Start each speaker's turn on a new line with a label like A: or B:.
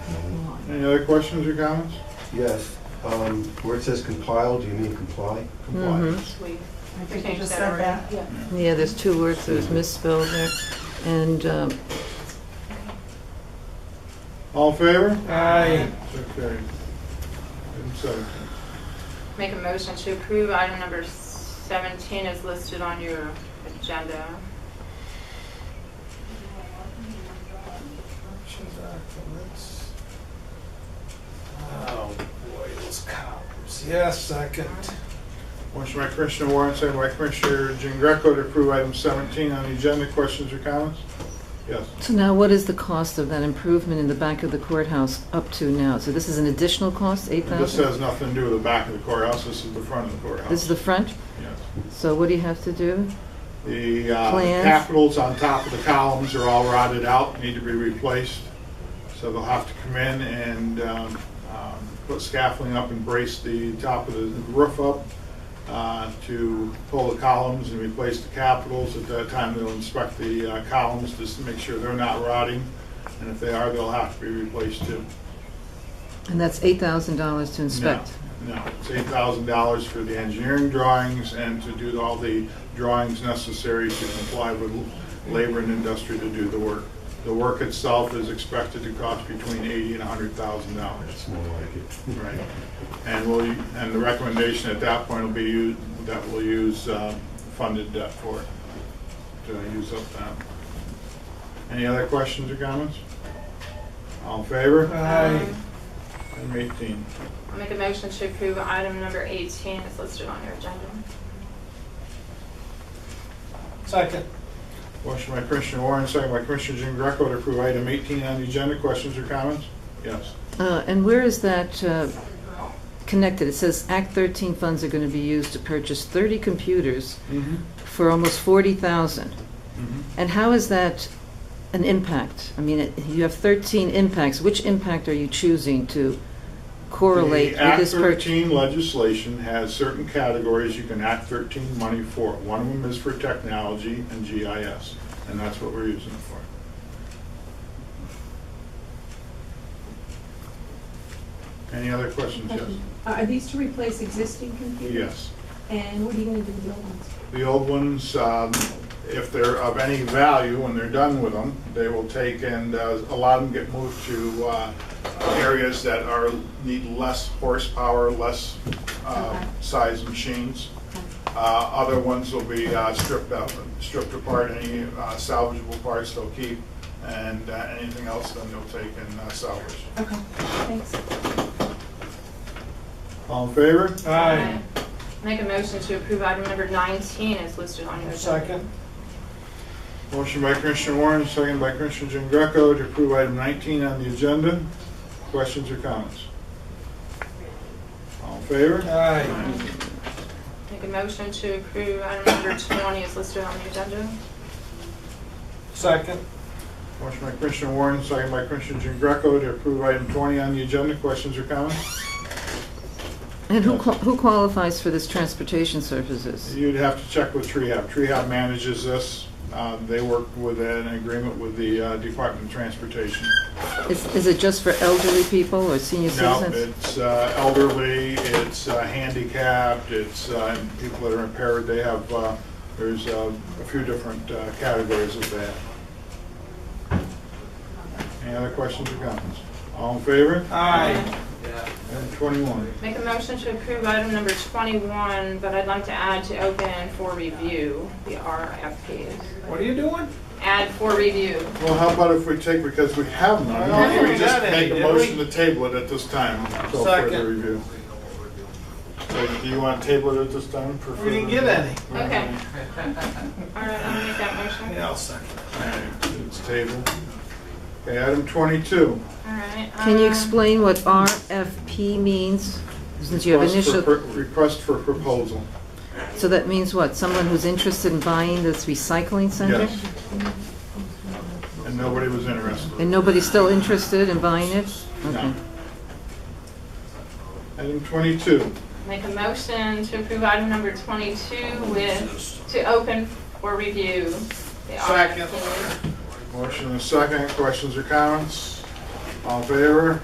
A: Any other questions or comments?
B: Yes, um, where it says compile, do you mean comply?
A: Comply.
C: We
D: I think you
C: changed that
D: just said that.
C: already. Yeah.
E: Yeah, there's two words that was misspelled there. And um,
A: All in favor?
F: Aye.
A: So carried. Item 17.
C: Make a motion to approve item number 17 is listed on your agenda.
F: Corrections documents. Oh, boy, those coppers. Yes, second.
A: Motion by Commissioner Warren, second by Commissioner Jean Greco to approve item 17 on the agenda. Questions or comments? Yes.
E: so now what is the cost of that improvement in the back of the courthouse up to now? So this is an additional cost,
A: This
E: 8,000?
A: has nothing to do with the back of the courthouse, this is the front of the courthouse.
E: Uh-huh. This is the front?
A: Yes.
E: So what do you have to do?
A: The uh,
E: Plans.
A: capitals on top of the columns are all rotted out, need to be replaced. So they'll have to come in and um, um, put scaffolding up and brace the top of the roof up uh, to pull the columns and replace the capitals. At that time, they'll inspect the uh, columns just to make sure they're not rotting. And if they are, they'll have to be replaced too.
E: And that's $8,000 to inspect?
A: No, no. it's eight thousand dollars for the engineering drawings and to do all the drawings necessary to comply with labor and industry to do the work. The work itself is expected to cost between eighty and a hundred thousand dollars.
B: It's more like it.
A: Right. And we'll, and the recommendation at that point will be u- that we'll use um, funded debt for it, to use up that. Any other questions or comments? All in favor?
F: Aye.
C: Um,
A: Item eighteen.
C: I'll Make a motion to approve item number 18 is listed on your agenda.
F: Second.
A: Motion by Commissioner Warren, second by Commissioner Jean Greco to approve item 18 on the agenda. Questions or comments? Yes.
E: Uh, And where is that uh, connected? It says Act 13 funds are going to be used to purchase 30 computers
A: Mm-hmm.
E: for almost 40,000. And how is that an impact? I mean, it- you have 13 impacts. Which impact are you choosing to correlate with this
A: Act
E: purchase?
A: 13 legislation has certain categories you can Act 13 money for. One of them is for technology and GIS, and that's what we're using it for. Any other questions? Yes.
D: Are these to replace existing computers?
A: Yes.
D: And what are you going to do with the old ones?
A: The old ones, um, if they're of any value, when they're done with them, they will take and uh, a lot of them get moved to uh, areas that are, need less horsepower, less uh,
D: Okay.
A: size machines. Uh, Other ones will be uh, stripped out, stripped apart, any uh, salvageable parts they'll keep, and uh, anything else then they'll take and uh, salvage.
D: Okay, thanks.
A: All in favor?
F: Aye.
C: Make a motion to approve item number 19 is listed on your agenda.
F: Second.
A: Motion by Commissioner Warren, second by Commissioner Jean Greco to approve item 19 on the agenda. Questions or comments? All in favor?
F: Aye.
C: Make a motion to approve item number 20 is listed on the agenda.
F: Second.
A: Motion by Commissioner Warren, second by Commissioner Jean Greco to approve item 20 on the agenda. Questions or comments?
E: And who qua- who qualifies for this transportation services?
A: You'd have to check with Trehab. Trehab manages this. Uh, They work with an agreement with the uh, Department of Transportation.
E: Is is it just for elderly people or senior
A: No,
E: citizens?
A: it's uh, elderly, it's uh, handicapped, it's uh, people that are impaired, they have, uh, there's uh, a few different uh, categories of that. Any other questions or comments? All in favor?
F: Aye.
A: Item 21.
C: Make a motion to approve item number 21, but I'd like to add to open for review, the RFPs.
F: What are you doing?
C: Add for review.
A: Well, how about if we take, because we have none,
F: I don't
A: maybe we
F: think we
A: just
F: got any,
A: make a
F: did
A: motion
F: we?
A: to table it at this time until further
F: Second.
A: review. So do you want to table it at this time? for
F: We didn't
A: further
F: get any.
A: review?
C: Okay. All right, I'll make that motion.
F: Yeah, I'll second.
A: All right, It's tabled. Okay, item 22.
C: All right.
E: Can you
C: um,
E: explain what RFP means? Since you have
A: Request for
E: initial,
A: pro- Request for proposal.
E: so that means what? Someone who's interested in buying this recycling center?
A: Yes. And nobody was interested.
E: And nobody's still interested in buying it? Okay.
A: No. Item 22.
C: Make a motion to approve item number 22 with, to open for review, the
F: Second.
C: RFPs.
A: Motion and a second. Questions or comments? All in favor?